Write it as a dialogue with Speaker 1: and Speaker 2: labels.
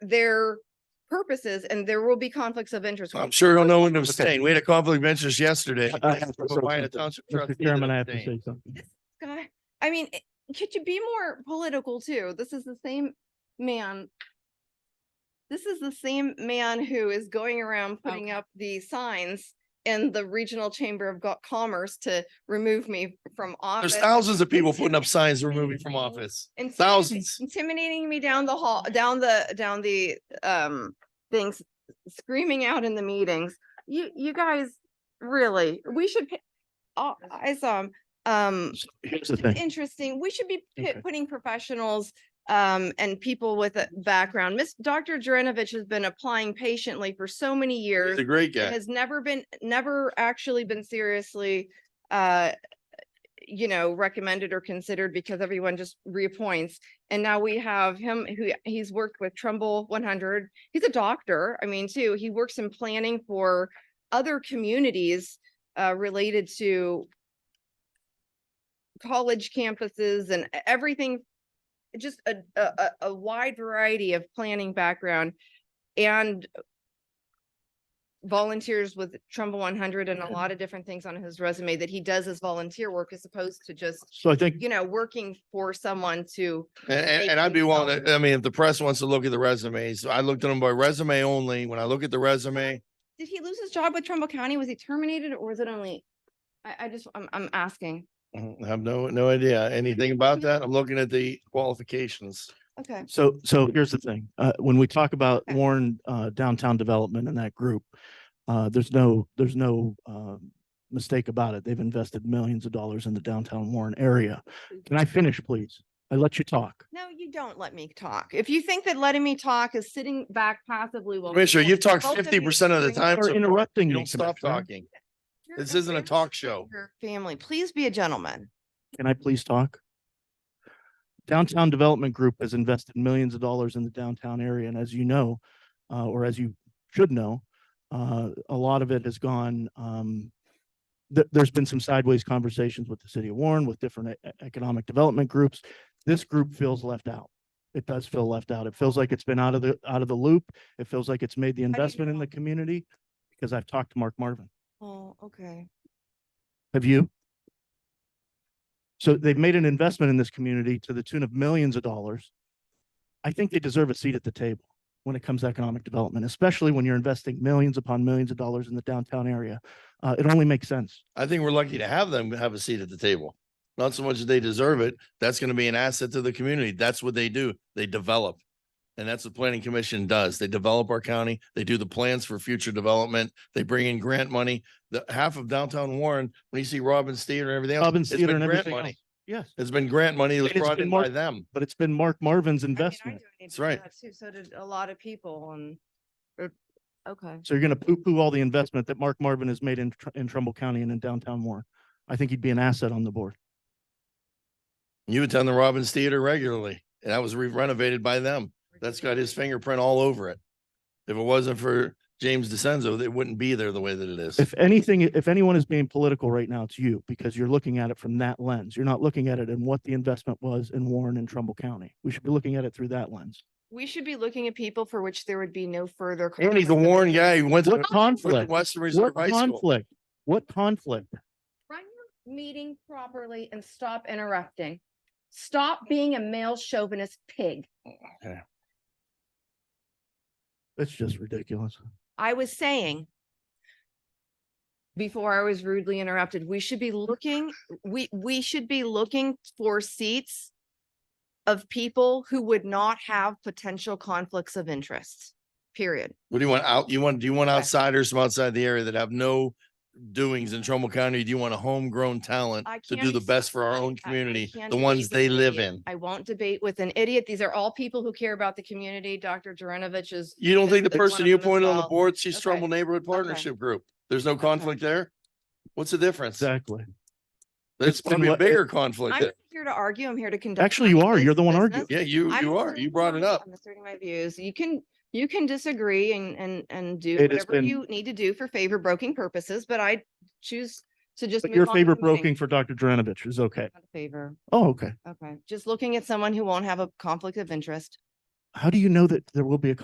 Speaker 1: their purposes and there will be conflicts of interest.
Speaker 2: I'm
Speaker 1: when-
Speaker 2: sure he'll know when to
Speaker 3: Okay.
Speaker 2: abstain. We had a conflict of interest yesterday.
Speaker 3: I have to-
Speaker 2: Why a township trustee
Speaker 3: Mr.
Speaker 2: that
Speaker 3: Chairman, I have to
Speaker 2: abstained.
Speaker 3: say something.
Speaker 1: God, I mean, it- could you be more political too? This is the same man. This is the same man who is going around putting
Speaker 4: Okay.
Speaker 1: up the signs in the Regional Chamber of Go- Commerce to remove me from
Speaker 2: There's
Speaker 1: office.
Speaker 2: thousands of people putting up signs removing from office.
Speaker 1: intimidate-
Speaker 2: thousands.
Speaker 1: Intimidating me down the hall, down the, down the, um, things, screaming out in the meetings. You, you guys, really, we should, pa- oh, I saw him, um,
Speaker 3: Here's the
Speaker 1: it's
Speaker 3: thing.
Speaker 1: interesting. We should be pu-
Speaker 3: Okay.
Speaker 1: putting professionals um, and people with a background. Miss Dr. Jaranovich has been applying patiently for so many years.
Speaker 2: He's a great
Speaker 1: and
Speaker 2: guy.
Speaker 1: Has never been, never actually been seriously uh, you know, recommended or considered because everyone just reappoints. And now we have him who he's worked with Trumbull one hundred. He's a doctor. I mean, too, he works in planning for other communities uh related to college campuses and e- everything, just a a a- a wide variety of planning background and volunteers with Trumbull one hundred and a lot of different things on his resume that he does as volunteer work as opposed to just,
Speaker 3: So I think,
Speaker 1: you know, working for someone to
Speaker 2: And, and,
Speaker 1: they
Speaker 2: and I'd be
Speaker 1: think
Speaker 2: willing
Speaker 1: so.
Speaker 2: to, I mean, if the press wants to look at the resumes, I looked at them by resume only. When I look at the resume,
Speaker 1: did he lose his job with Trumbull County? Was he terminated or was it only? I, I just, I'm, I'm asking.
Speaker 2: mm-hmm, I have no, no idea anything about that. I'm looking at the qualifications.
Speaker 1: Okay.
Speaker 3: so, so here's the thing. Uh, when we talk about
Speaker 1: Okay.
Speaker 3: Warren, uh, downtown development and that group, uh, there's no, there's no, um, mistake about it. They've invested millions of dollars in the downtown Warren area. Can I finish, please? I let you talk.
Speaker 1: No, you don't let me talk. If you think that letting me talk is sitting back passively while.
Speaker 2: Commissioner,
Speaker 1: people-
Speaker 2: you've talked
Speaker 1: both of you
Speaker 2: fifty percent of the
Speaker 1: bring
Speaker 2: time.
Speaker 3: Or
Speaker 2: so
Speaker 3: interrupting
Speaker 2: You
Speaker 3: me,
Speaker 2: don't stop
Speaker 3: Commissioner.
Speaker 2: talking.
Speaker 1: your
Speaker 2: This isn't a
Speaker 1: affairs
Speaker 2: talk
Speaker 1: to
Speaker 2: show.
Speaker 1: Your family, please be a gentleman.
Speaker 3: Can I please talk? Downtown Development Group has invested millions of dollars in the downtown area, and as you know, uh, or as you should know, uh, a lot of it has gone, um, there, there's been some sideways conversations with the city of Warren, with different e- e- economic development groups. This group feels left out. It does feel left out. It feels like it's been out of the, out of the loop. It feels like it's made the investment in
Speaker 1: know?
Speaker 3: the community, because I've talked to Mark Marvin.
Speaker 1: Oh, okay.
Speaker 3: Have you? So they've made an investment in this community to the tune of millions of dollars. I think they deserve a seat at the table when it comes to economic development, especially when you're investing millions upon millions of dollars in the downtown area. Uh, it only makes sense.
Speaker 2: I think we're lucky to have them have a seat at the table. Not so much that they deserve it. That's going to be an asset to the community. That's what they do. They develop. And that's what planning commission does. They develop our county. They do the plans for future development. They bring in grant money. The half of downtown Warren, when you see Robbins Theater and everything. else,
Speaker 3: Robbins
Speaker 2: it's
Speaker 3: Theater
Speaker 2: been
Speaker 3: and
Speaker 2: grant
Speaker 3: everything
Speaker 2: money.
Speaker 3: else. Yes,
Speaker 2: It's been grant money that was
Speaker 3: And it's
Speaker 2: brought
Speaker 3: been
Speaker 2: in
Speaker 3: more-
Speaker 2: by them.
Speaker 3: but it's been Mark Marvin's
Speaker 1: I mean, I
Speaker 3: investment.
Speaker 1: donated
Speaker 2: That's
Speaker 1: to
Speaker 2: right.
Speaker 1: that too, So did a lot of people and, or- okay.
Speaker 3: So you're going to poo-poo all the investment that Mark Marvin has made in, Tr- in Trumbull County and in downtown Warren. I think he'd be an asset on the board.
Speaker 2: You attend the Robbins Theater regularly and that was re- renovated by them. That's got his fingerprint all over it. If it wasn't for James DeCenzo, it wouldn't be there the way that it is.
Speaker 3: If anything, if anyone is being political right now, it's you because you're looking at it from that lens. You're not looking at it and what the investment was in Warren and Trumbull County. We should be looking at it through that lens.
Speaker 1: We should be looking at people for which there would be no further.
Speaker 2: And he's a
Speaker 1: conflict of
Speaker 2: Warren
Speaker 1: interest.
Speaker 2: guy. He went to
Speaker 3: What
Speaker 2: went to
Speaker 3: conflict?
Speaker 2: Western Reserve
Speaker 3: What
Speaker 2: High School.
Speaker 3: conflict? What conflict?
Speaker 1: Run your meeting properly and stop interrupting. Stop being a male chauvinist pig.
Speaker 3: It's just ridiculous.
Speaker 1: I was saying before I was rudely interrupted, we should be looking, we, we should be looking for seats of people who would not have potential conflicts of interest, period.
Speaker 2: What do you want out? You want, do you want
Speaker 1: Okay.
Speaker 2: outsiders from outside the area that have no doings in Trumbull County? Do you want a homegrown talent
Speaker 1: I
Speaker 2: to
Speaker 1: can't
Speaker 2: do the
Speaker 1: accept
Speaker 2: best for our
Speaker 1: I-
Speaker 2: own
Speaker 1: I- I
Speaker 2: community,
Speaker 1: can't
Speaker 2: the
Speaker 1: debate
Speaker 2: ones
Speaker 1: with
Speaker 2: they
Speaker 1: an
Speaker 2: live
Speaker 1: idiot.
Speaker 2: in?
Speaker 1: I won't debate with an idiot. These are all people who care about the community. Dr. Jaranovich is
Speaker 2: You don't think the
Speaker 1: It's one
Speaker 2: person
Speaker 1: of
Speaker 2: you
Speaker 1: them as
Speaker 2: appointed on the
Speaker 1: well.
Speaker 2: board, she's
Speaker 1: Okay.
Speaker 2: Trumbull Neighborhood Partnership Group? There's no conflict there? What's the difference?
Speaker 3: Exactly.
Speaker 2: There's
Speaker 3: been
Speaker 2: gonna be a
Speaker 3: what-
Speaker 2: bigger conflict
Speaker 1: I'm
Speaker 2: there.
Speaker 1: not here to argue. I'm here to conduct.
Speaker 3: Actually, you are. You're the one arguing.
Speaker 1: arguing.
Speaker 2: Yeah, you, you are. You brought it up.
Speaker 1: I'm asserting my views. You can, you can disagree and, and, and do
Speaker 3: It has
Speaker 1: whatever
Speaker 3: been-
Speaker 1: you need to do for favor broking purposes, but I choose to just.
Speaker 3: But
Speaker 1: move
Speaker 3: your
Speaker 1: on to
Speaker 3: favorite
Speaker 1: the meeting.
Speaker 3: broking for Dr. Dranovich is okay.
Speaker 1: Not a Favor,
Speaker 3: Oh, okay.
Speaker 1: okay. Just looking at someone who won't have a conflict of interest.
Speaker 3: How do you know that there will be a